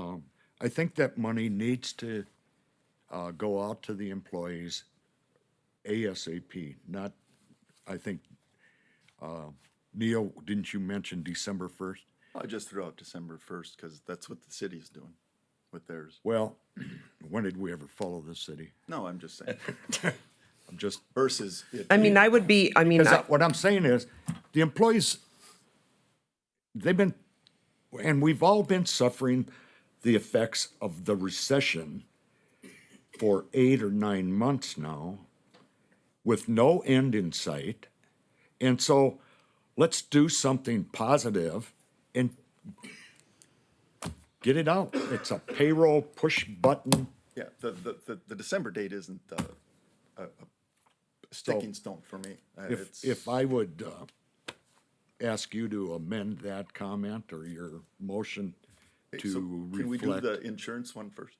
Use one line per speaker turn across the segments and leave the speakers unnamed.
Um, I think that money needs to uh, go out to the employees ASAP, not, I think, uh, Neil, didn't you mention December 1st?
I just threw out December first because that's what the city's doing with theirs.
Well, when did we ever follow the city?
No, I'm just saying
I'm just,
versus. it
I mean, I would be, I mean,
Because
I-
I- what I'm saying is, the employees, they've been, and we've all been suffering the effects of the recession for eight or nine months now, with no end in sight. And so, let's do something positive and get it out. It's a payroll push button.
Yeah, the, the, the, the December date isn't uh, a, a sticking stone for me. Uh,
If,
it's-
if I would uh, ask you to amend that comment or your motion
Okay,
to
so Can we do the
reflect,
insurance one first?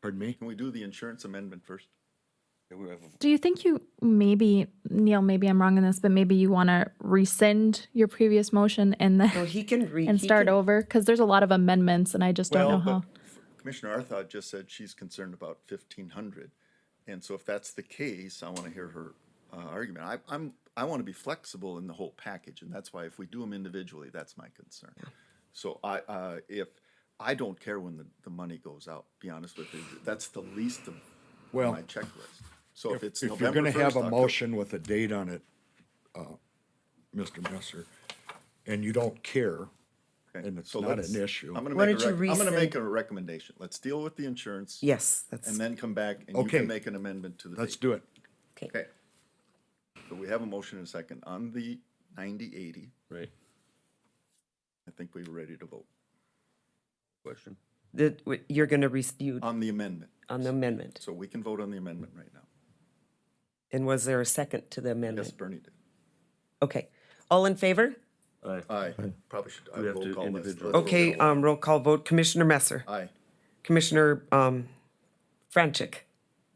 pardon me?
Can we do the insurance amendment first?
Do you think you maybe, Neil, maybe I'm wrong in this, but maybe you want to rescind your previous motion and
well,
then
Oh, he can read.
and start over? Because there's a lot of amendments and I just don't know how.
but Commissioner Arthod just said she's concerned about fifteen hundred. And so if that's the case, I want to hear her uh, argument. I, I'm, I want to be flexible in the whole package, and that's why if we do them individually, that's my concern. So I, uh, if, I don't care when the, the money goes out, be honest with you. That's the least of
Well,
my checklist. So if it's
If you're
November
gonna have
first,
a
October.
motion with a date on it, uh, Mr. Messer, and you don't care, and it's
So
not
let's-
an issue.
I'm gonna
Why
make a,
don't you
rec- I'm gonna
rescind-
make a recommendation. Let's deal with the insurance.
Yes, that's,
And then come back and you
Okay.
can make an amendment to the date.
Let's do it.
Okay. So we have a motion and a second on the ninety eighty.
Right.
I think we were ready to vote
Question.
the, you're gonna re, you,
on the amendment.
on the amendment.
So we can vote on the amendment right now.
And was there a second to the
Yes,
amendment?
Bernie did.
Okay, all in favor?
Aye.
Aye. Probably should, I
We have
roll
to
call this.
individually um,
Let's roll
Okay,
call.
um, roll call vote, Commissioner Messer,
Aye.
Commissioner, um, Franchek.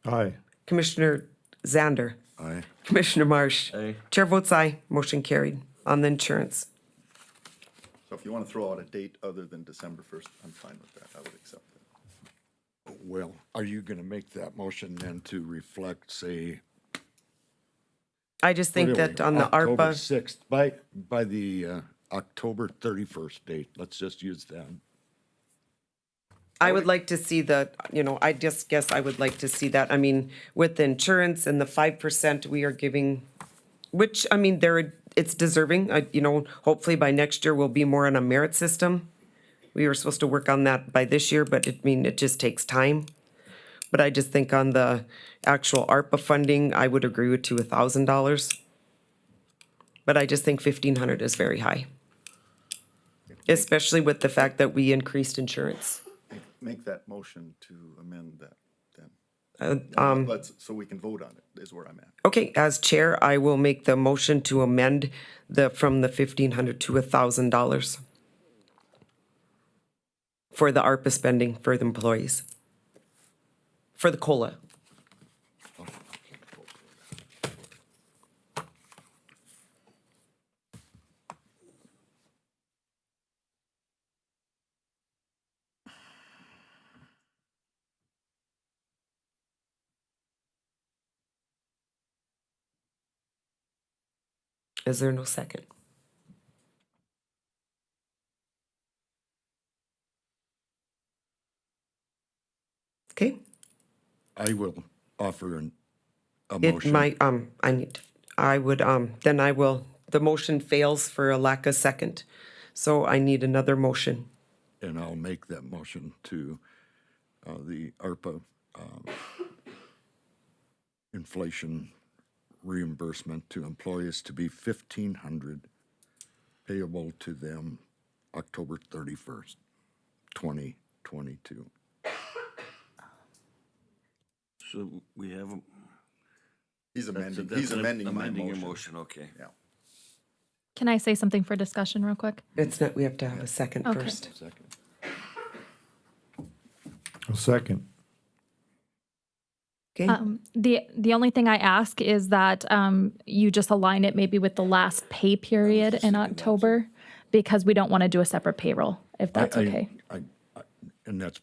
Aye.
Commissioner Zander.
Aye.
Commissioner Marsh.
Aye.
Chair votes aye, motion carried on the insurance.
So if you want to throw out a date other than December first, I'm fine with that. I would accept that.
Well, are you gonna make that motion then to reflect, say,
I just think
what are we,
that on the
October
ARPA,
6th, by, by the uh, October 31st date, let's just use that.
I would like to see the, you know, I just guess I would like to see that. I mean, with the insurance and the five percent we are giving, which, I mean, there, it's deserving, I, you know, hopefully by next year we'll be more on a merit system. We were supposed to work on that by this year, but it, I mean, it just takes time. But I just think on the actual ARPA funding, I would agree with you a thousand dollars. But I just think fifteen hundred is very high. Especially with the fact that we increased insurance.
Make that motion to amend that then.
Uh,
um,
Let's, so we can vote on it is where I'm at.
Okay, as chair, I will make the motion to amend the, from the fifteen hundred to a thousand dollars for the ARPA spending for the employees, for the COLA. Is there no second? Okay,
I will offer an, a
it
motion.
might, um, I need, I would, um, then I will, the motion fails for a lack of second. So I need another motion.
and I'll make that motion to uh, the ARPA um, inflation reimbursement to employees to be fifteen hundred payable to them October thirty-first, twenty twenty-two.
So we have. a-
He's
that's a-
amending,
that's
he's
an
amending my
Amending your
motion.
motion, okay.
Yeah.
Can I say something for discussion real quick?
It's not, we have to have a second
Okay.
first.
A second.
Okay,
Um, the the only thing I ask is that um, you just align it maybe with the last pay period in October because we don't want to do a separate payroll if that's okay.
I, I, and that's